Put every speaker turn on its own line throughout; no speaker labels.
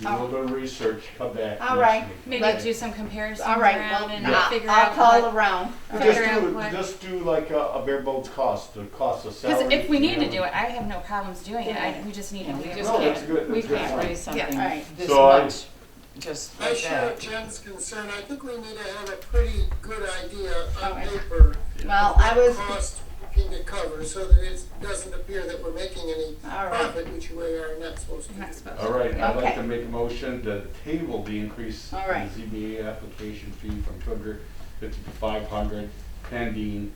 do a little bit of research, come back.
All
next
right.
week,
Maybe
okay?
do some comparisons
All right,
around
well,
and
I-
figure
I'll
out
call
what-
around.
But
figure
Okay.
Just
out
do,
what-
just do like a, a bare bones cost, the cost of salary.
Because if we need to do
know.
it, I have no problems doing it. I, we just need to.
Yeah, we
figure
just
No,
out.
that's
can't,
good,
we
that's good.
can't raise
Yeah,
something
alright.
this
So I-
much, just
I
like
share
that.
Jen's concern. I think we need to have a pretty good idea on
Alright.
paper.
Well,
of
I
what
was-
Cost we can cover so that it doesn't appear that we're making any
Alright.
profit, which we are not supposed to.
I'm not
do.
supposed to.
All right, I'd like
Okay.
to make a motion to table the increase in
All right.
ZBA application fee from two hundred fifty to five hundred pending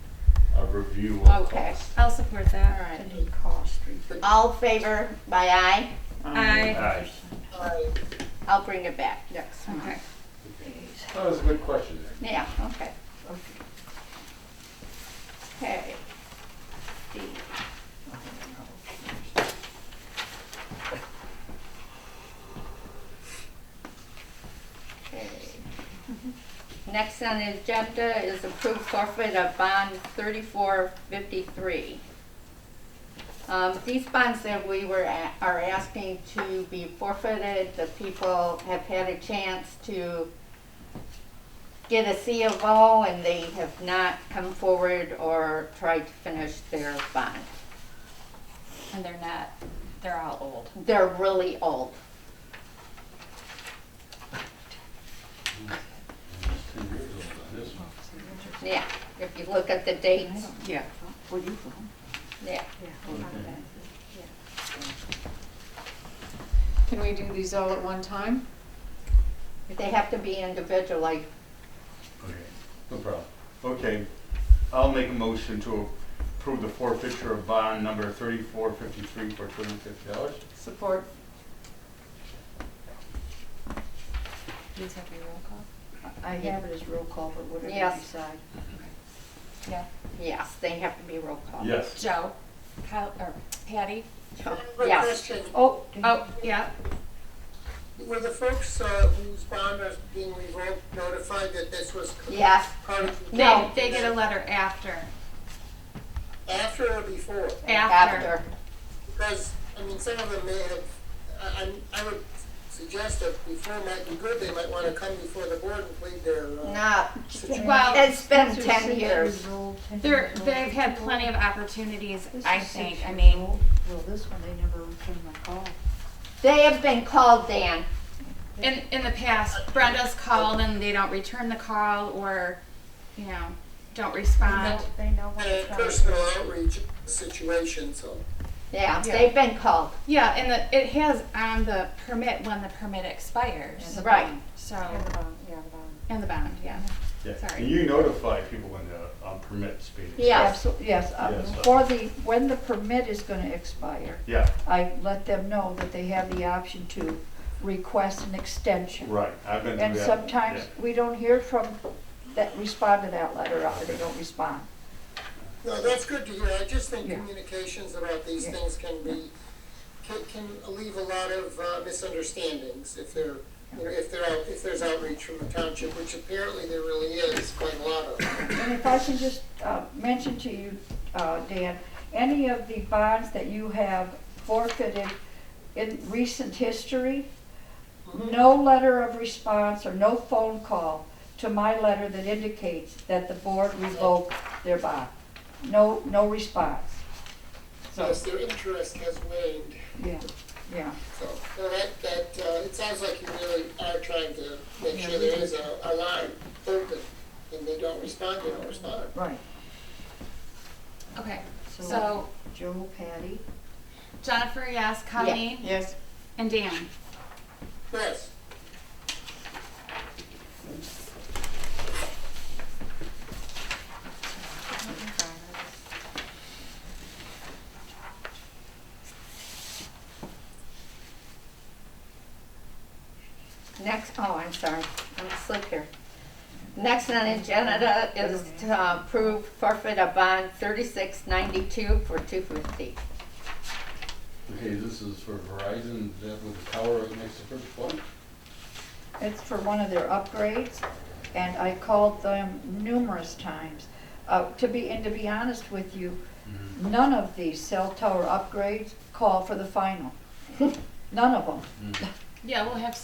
a review of
Okay.
cost.
I'll support that.
All right. All in favor by aye.
Um,
I.
Aye.
Alright.
I'll bring it back next time.
Okay.
That was a good question there.
Yeah, okay. Okay. D. Okay. Next on the agenda is approved forfeit of bond thirty-four fifty-three. Um, these bonds that we were, a- are asking to be forfeited, the people have had a chance to get a C of O and they have not come forward or tried to finish their bond.
And they're not. They're all old.
They're really old. Yeah, if you look at the dates,
Yeah.
yeah.
Can we do these all at one time?
They have to be individualized.
Okay, no problem. Okay, I'll make a motion to approve the forfeiture of bond number thirty-four fifty-three for two hundred and fifty dollars.
Support.
These have to be roll call.
I have it as roll call, but whatever you
Yes.
decide.
Yeah.
Yes, they have to be roll call.
Yes.
Joe. Kyle or Patty.
I have a
Yes.
question.
Oh. Oh. Yeah.
Were the folks uh, whose bond is being revoked notified that this was co-
Yes,
part of? the-
No.
They, they get a letter after.
After or before?
After.
after.
Because, I mean, some of them may have, I, I'm- I would suggest that before might be good, they might want to come before the board and plead their. uh,
No,
situation.
Well,
it's been ten years.
they're they've had plenty of opportunities. I think. I mean,
Well, this one, they never returned my call.
They have been called, Dan.
in in the past, Brenda's called and they don't return the call or, you know, don't respond.
They know when
a
it's coming.
personal outreach situation, so.
Yeah, they've been called.
Yeah, and the, it has on the permit when the permit expires.
Yeah.
Right,
So,
Yeah, the bond, yeah, the bond.
and the bond, yeah.
Yeah.
Sorry.
And you notify people when the um, permit's being.
yes.
Absol- Yes, uh,
Yes.
for the, when the permit is gonna expire,
Yeah,
I let them know that they have the option to request an extension.
right, I've been through
And
that.
sometimes
Yeah.
we don't hear from, that, respond to that letter, or they don't respond.
No, that's good to hear. I just think
Yeah.
communications about these
Yeah.
things can be, can, can leave a lot of uh, misunderstandings if they're, you know, if they're, out- if there's outreach from the township, which apparently there really is quite a lot of.
And if I can just uh, mention to you, uh, Dan, any of the bonds that you have forfeited in recent history, no letter of response or no phone call to my letter that indicates that the board revoked their bond. No, no response. So,
Plus, their interest has waned,
yeah, yeah.
so, no, that, that, uh, it sounds like you really are trying to make sure there is a, a line open, and they don't respond, they don't respond.
Right.
Okay, so
Joe, Patty,
Jennifer, yes, Colleen,
Yes.
and Dan.
Yes.
Next, oh, I'm sorry, I'm slick here. Next on the agenda is to approve forfeit of bond thirty-six ninety-two for two fifty.
Okay, this is for Verizon, is that with the tower right next to First Point?
It's for one of their upgrades, and I called them numerous times. Uh, To be, and to be honest with you, none of these cell tower upgrades call for the final. None of them.
Yeah, we'll have